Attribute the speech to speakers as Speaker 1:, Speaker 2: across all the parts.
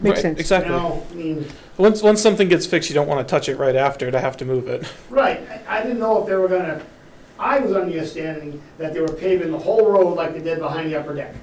Speaker 1: Makes
Speaker 2: Right,
Speaker 1: sense.
Speaker 2: Exactly.
Speaker 3: Now, I mean,
Speaker 2: Once, once something gets fixed, you don't want to touch it right after to have to move it.
Speaker 3: right, I, I didn't know if they were gonna, I was under the understanding that they were paving the whole road like they did behind the upper deck.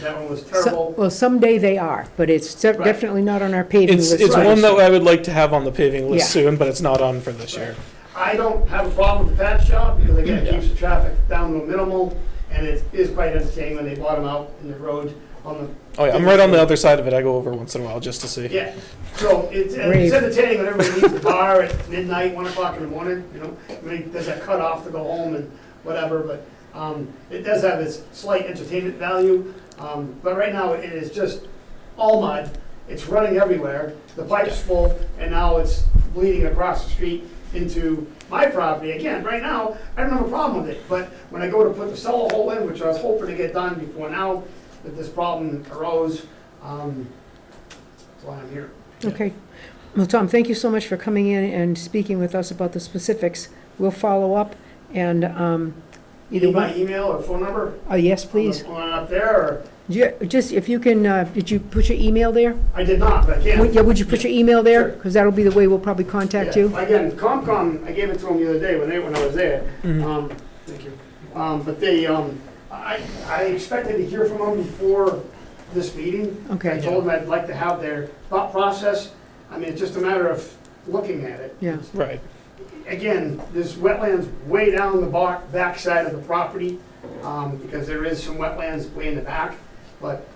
Speaker 3: That one was
Speaker 1: So-
Speaker 3: terrible.
Speaker 1: Well, someday they are, but it's de-
Speaker 3: Right.
Speaker 1: definitely not on our paving
Speaker 2: It's,
Speaker 1: list.
Speaker 2: it's
Speaker 3: Right.
Speaker 2: one that I would like to have on the paving list
Speaker 1: Yeah.
Speaker 2: soon, but it's not on for this year.
Speaker 3: I don't have a problem with the patch job, because again, it keeps the traffic down to a minimal, and it is quite entertaining when they bottom out in the road on
Speaker 2: Oh yeah, I'm right on the other side of it. I go over once in a while just to
Speaker 3: the,
Speaker 2: see.
Speaker 3: yeah. So it's, and it's
Speaker 1: Rave.
Speaker 3: entertaining when everybody leaves the bar at midnight, one o'clock in the morning, you know, I mean, there's a cutoff to go home and whatever, but, um, it does have its slight entertainment value, um, but right now it is just all mud, it's running everywhere, the pipe's full, and now it's bleeding across the street into my property, again, right now, I don't have a problem with it, but when I go to put the cellar hole in, which I was hoping to get done before now, that this problem arose, um, that's why I'm here.
Speaker 1: Okay. Well, Tom, thank you so much for coming in and speaking with us about the specifics. We'll follow up and um,
Speaker 3: You
Speaker 1: either
Speaker 3: need my
Speaker 1: one,
Speaker 3: email or phone number?
Speaker 1: oh, yes, please.
Speaker 3: On up there, or,
Speaker 1: Ju- Just if you can, uh, did you put your email there?
Speaker 3: I did not, but I
Speaker 1: Would
Speaker 3: can.
Speaker 1: yeah, would you put your email there?
Speaker 3: Sure.
Speaker 1: Because that'll be the way we'll probably contact you.
Speaker 3: Yeah. Again, Comcom, I gave it to them the other day when they, when I was there.
Speaker 1: Mm-hmm.
Speaker 2: Mhm.
Speaker 3: Um, thank you. Um, but they, um, I, I expected to hear from them before this meeting. I
Speaker 1: Okay,
Speaker 3: told them I'd like to have their thought process. I mean, it's just a matter of looking at it.
Speaker 1: yeah,
Speaker 2: Right.
Speaker 3: Again, there's wetlands way down the back, backside of the property, um, because there is some wetlands way in the back. But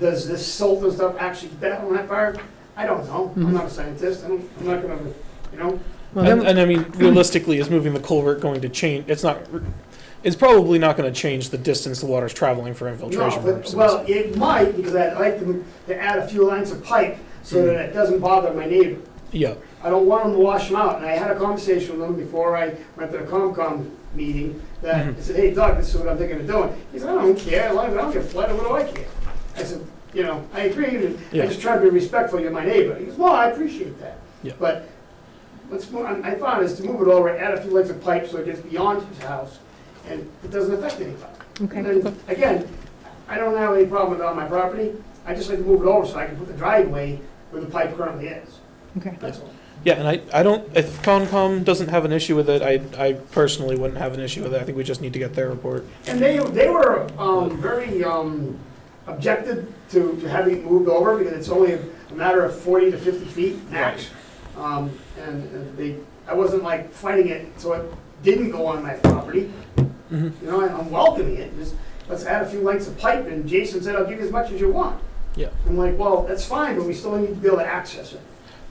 Speaker 3: does this silt and stuff actually get that on that fire? I don't know. I'm not a scientist. I don't, I'm not gonna, you know?
Speaker 1: well,
Speaker 2: and,
Speaker 1: then,
Speaker 2: and I mean, realistically, is moving the culvert going to change? It's not. It's probably not going to change the distance the water's traveling for infiltration
Speaker 3: No, but,
Speaker 2: purposes.
Speaker 3: well, it might, because I'd like to, to add a few lines of pipe so that it doesn't bother my neighbor.
Speaker 2: yeah.
Speaker 3: I don't want them to wash them out, and I had a conversation with them before I went to the COMCOM meeting, that,
Speaker 2: Mm-hmm.
Speaker 3: I said, hey, Doug, this is what I'm thinking of doing. He said, I don't care, as long as I don't get flooded, what do I care? I said, you know, I agree, and
Speaker 2: Yeah.
Speaker 3: I just try to be respectful, you're my neighbor. He goes, well, I appreciate that.
Speaker 2: Yeah.
Speaker 3: But what's more, I I found is to move it over, add a few legs of pipe so it gets beyond his house, and it doesn't affect anybody. And
Speaker 1: okay,
Speaker 3: then, again, I don't have any problem with it on my property, I just like to move it over so I can put the driveway where the pipe currently is,
Speaker 1: okay.
Speaker 3: that's all.
Speaker 2: Yeah, and I, I don't, if Concom doesn't have an issue with it, I, I personally wouldn't have an issue with it. I think we just need to get their report.
Speaker 3: And they, they were um, very um, objected to to having it moved over because it's only a matter of 40 to 50 feet max. Um, And and they, I wasn't like fighting it, so it didn't go on my property.
Speaker 2: Mhm.
Speaker 3: You know, I- I'm welcoming it, just let's add a few lengths of pipe and Jason said, I'll give you as much as you want.
Speaker 2: Yeah.
Speaker 3: I'm like, well, that's fine, but we still need to be able to access it.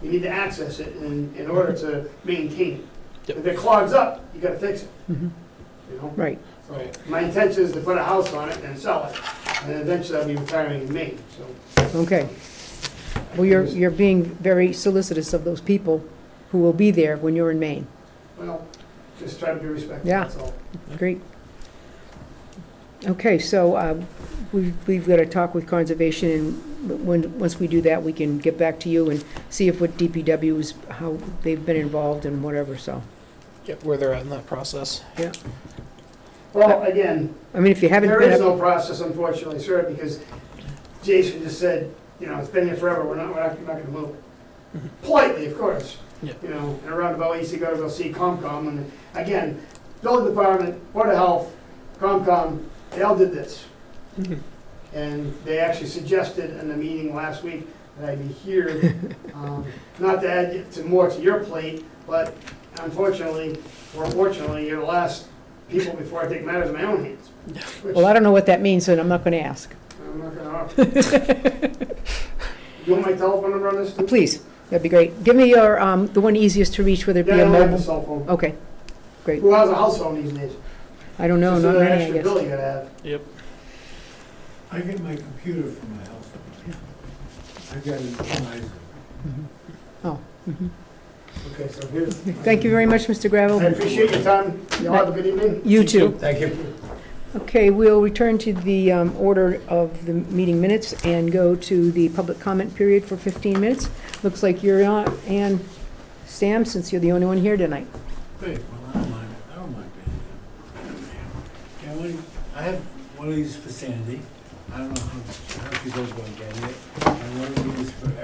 Speaker 3: We need to access it in, in order to maintain it.
Speaker 2: Yep.
Speaker 3: If it clogs up, you gotta fix it,
Speaker 1: Mhm.
Speaker 3: you know?
Speaker 1: Right,
Speaker 3: So my intention is to put a house on it and sell it, and eventually I'll be retiring in Maine, so.
Speaker 1: okay. Well, you're, you're being very solicitous of those people who will be there when you're in Maine.
Speaker 3: Well, just try to be respectful,
Speaker 1: Yeah.
Speaker 3: that's all.
Speaker 1: Great. Okay, so uh, we- we've got to talk with Conservation, and when, once we do that, we can get back to you and see if what DPW is, how they've been involved and whatever, so.
Speaker 2: Get where they're at in that process.
Speaker 3: Well, again,
Speaker 1: I mean, if you haven't
Speaker 3: there
Speaker 1: been
Speaker 3: is
Speaker 1: up,
Speaker 3: no process unfortunately, sir, because Jason just said, you know, it's been here forever, we're not, we're not we're not gonna move
Speaker 1: Mm-hmm.
Speaker 3: it. Politely, of course.
Speaker 2: Yeah.
Speaker 3: You know, in a roundabout way, you go to go see Comcom, and again, building department, Board of Health, Comcom, they all did this. And they actually suggested in the meeting last week that I be here, um, not to add to more to your plate, but unfortunately, or fortunately, you're the last people before I take matters in my own hands. which
Speaker 1: well, I don't know what that means, and I'm not going to ask.
Speaker 3: I'm not gonna offer. Do you want my telephone number on this? too?
Speaker 1: Please, that'd be great. Give me your, um, the one easiest to reach, whether it
Speaker 3: Yeah, I
Speaker 1: be a
Speaker 3: don't have a
Speaker 1: mobile.
Speaker 3: cell phone.
Speaker 1: Okay, great.
Speaker 3: Who has a house phone these days?
Speaker 1: I don't know,
Speaker 3: Just
Speaker 1: not
Speaker 3: another
Speaker 1: many, I
Speaker 3: extra
Speaker 1: guess.
Speaker 3: bill you gotta have.
Speaker 2: Yep.
Speaker 4: I get my computer from my house. I got it from my,
Speaker 3: Okay, so here's,
Speaker 1: Oh. Thank you very much, Mr.
Speaker 3: I
Speaker 1: Gravel.
Speaker 3: appreciate your time. Y'all have a good evening.
Speaker 1: You too.
Speaker 4: thank you.
Speaker 1: Okay, we'll return to the um, order of the meeting minutes and go to the public comment period for 15 minutes. Looks like you're on, and Sam, since you're the only one here tonight.
Speaker 4: Great, well, I don't mind, I don't mind being here. Yeah, well, I have one of these for Sandy, I don't know how, how she goes about getting it. I want to do this for